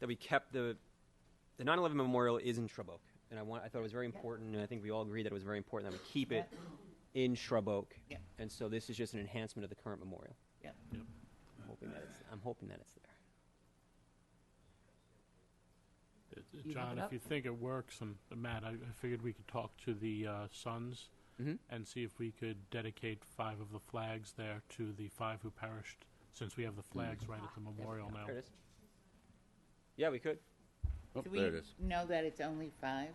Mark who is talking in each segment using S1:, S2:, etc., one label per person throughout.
S1: that we kept the the 9/11 memorial is in Shrub Oak, and I want I thought it was very important, and I think we all agree that it was very important that we keep it in Shrub Oak.
S2: Yeah.
S1: And so this is just an enhancement of the current memorial.
S2: Yeah.
S1: I'm hoping that it's I'm hoping that it's there.
S3: Uh, uh,
S2: You have
S3: John,
S2: it
S3: if
S2: up?
S3: you think it works, and uh, Matt, I I figured we could talk to the uh, Sons
S2: Mm-hmm.
S1: Mhm.
S3: and see if we could dedicate five of the flags there to the five who perished, since we have the
S2: Mm-hmm.
S3: flags right
S2: Ah,
S3: at the memorial now.
S1: There it is. Yeah, we could.
S4: Oh,
S2: Do we
S4: there it is.
S2: know that it's only five?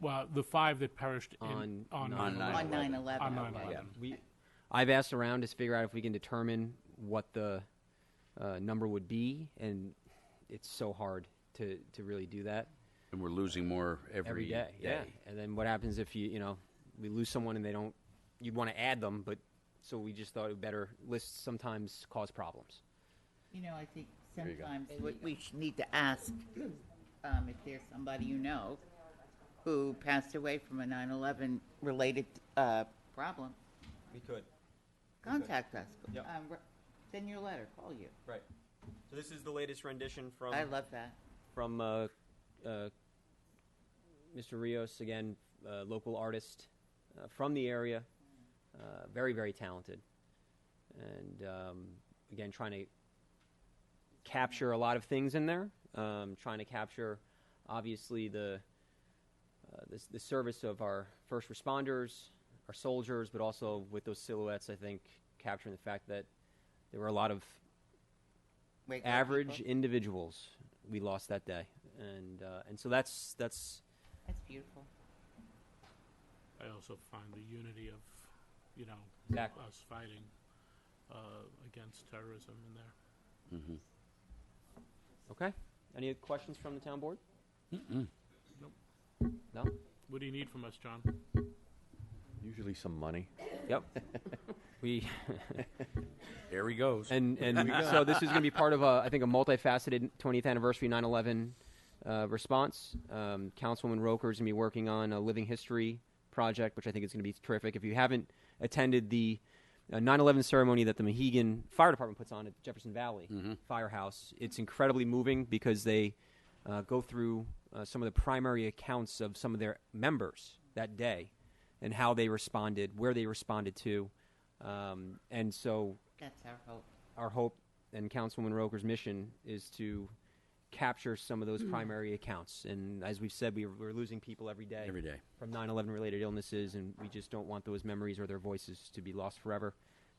S3: Well, the five that perished in-
S1: On-
S3: on
S1: on
S3: 9/11.
S2: On
S4: 9/11.
S2: nine eleven,
S3: On
S2: okay.
S3: 9/11.
S1: Yeah,
S3: Um,
S1: we, I've asked around to figure out if we can determine what the uh, number would be, and it's so hard to, to really do that
S4: And we're losing more every,
S1: every day. Yeah, and then what happens if you you know we lose someone and they don't? You'd want to add them, but so we just thought it better lists sometimes cause problems.
S2: You know, I think
S4: you go.
S2: sometimes what we should need to ask, um, if there's somebody you know who passed away from a nine eleven related, uh, problem,
S1: We could,
S2: contact us.
S1: Yep.
S2: Um, re- Send your letter, call you.
S1: right? So this is the latest rendition from
S2: I love that.
S1: from uh, uh, Mr. Rios, again, uh, local artist uh, from the area, uh, very, very talented. And um, again, trying to capture a lot of things in there, um, trying to capture obviously the, uh, the, the service of our first responders, our soldiers, but also with those silhouettes, I think capturing the fact that there were a lot of
S2: Regular
S1: average
S2: people.
S1: individuals we lost that day, and uh, and so that's that's
S2: That's beautiful.
S3: I also find the unity of, you know,
S1: Exactly.
S3: us fighting uh, against terrorism in there.
S1: okay. Any questions from the town board?
S3: Nope.
S1: No.
S3: What do you need from us, John?
S5: Usually some money.
S1: Yep. we
S4: There he goes.
S1: and and so this is going to be part of a I think a multifaceted 20th anniversary 9/11 uh, response. Um, Councilwoman Roker is going to be working on a living history project, which I think is going to be terrific. If you haven't attended the uh, 9/11 ceremony that the Mohegan Fire Department puts on at Jefferson Valley Firehouse, it's incredibly moving because they uh, go through uh, some of the primary accounts of some of their members that day and how they responded, where they responded to. Um, and so
S2: That's our hope.
S1: our hope and Councilwoman Roker's mission is to capture some of those primary accounts. And as we've said, we, we're losing people every day.
S4: Every day.
S1: From 9-11 related illnesses, and we just don't want those memories or their voices to be lost forever.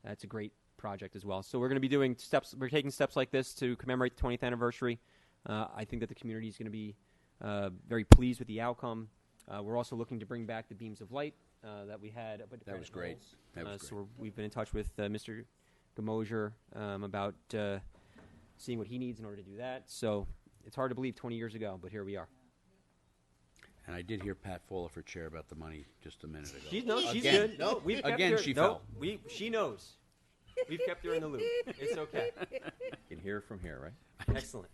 S1: That's a great project as well. So we're going to be doing steps, we're taking steps like this to commemorate the 20th anniversary. Uh, I think that the community is going to be uh, very pleased with the outcome. Uh, we're also looking to bring back the beams of light uh, that we had. Up at
S4: That was
S1: Granite
S4: great.
S1: Knolls.
S4: That
S1: Uh,
S4: was
S1: So
S4: great.
S1: we're- we've been in touch with uh, Mr. Gamosier um, about uh, seeing what he needs in order to do that. So it's hard to believe 20 years ago, but here we are.
S4: And I did hear Pat Follifer chair about the money just a minute ago.
S1: She no, she's
S4: Again.
S1: good. No, we've kept
S4: Again,
S1: her-
S4: she
S1: no,
S4: fell.
S1: We, she knows. We've kept her in the loop. It's okay.
S5: You can hear from here, right?
S1: Excellent.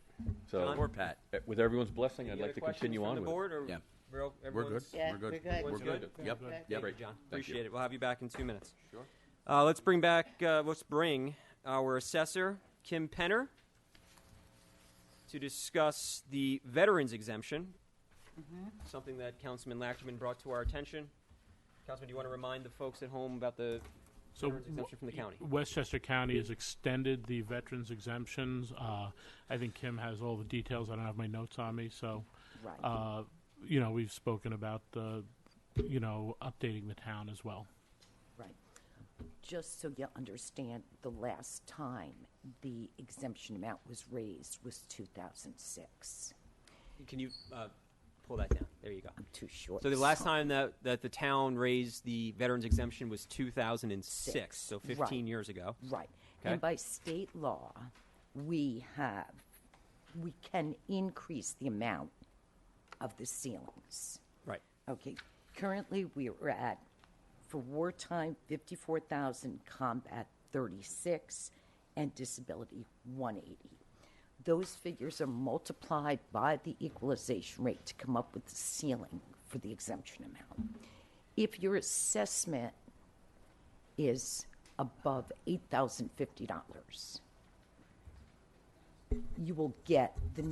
S5: So,
S1: John?
S4: Poor Pat.
S5: uh, with everyone's blessing, I'd
S1: Any
S5: like
S1: other
S5: to
S1: questions
S5: continue
S1: from
S5: on
S1: the
S5: with it.
S1: board, or
S4: Yeah.
S1: we're, o-
S4: We're good.
S1: everyone's-
S2: Yeah,
S4: We're good.
S2: we're good.
S1: Everyone's
S4: We're
S1: good?
S4: good. Yep.
S2: Good.
S4: Yep.
S1: Thank you, John. Appreciate it. We'll have you back in two minutes.
S4: Sure.
S1: Uh, let's bring back, uh, let's bring our assessor, Kim Penner, to discuss the veterans exemption, something that Councilman Lachman brought to our attention. Councilman, do you want to remind the folks at home about the
S3: So
S1: veterans exemption from the county?
S3: Westchester County has extended the veterans exemptions. Uh, I think Kim has all the details. I don't have my notes on me, so. Uh, you know, we've spoken about the, you know, updating the town as well.
S6: Right. Just so you understand, the last time the exemption amount was raised was 2006.
S1: Can you uh, pull that down? There you go.
S6: I'm too short.
S1: So the last time that, that the town raised the veterans exemption was 2006,
S6: Six.
S1: so
S6: Right.
S1: 15 years ago.
S6: Right.
S1: Okay.
S6: And by state law, we have, we can increase the amount of the ceilings.
S1: Right.
S6: Okay, currently, we are at, for wartime, fifty-four thousand, combat thirty-six, and disability one eighty. Those figures are multiplied by the equalization rate to come up with the ceiling for the exemption amount. If your assessment is above eight thousand fifty dollars, you will get the new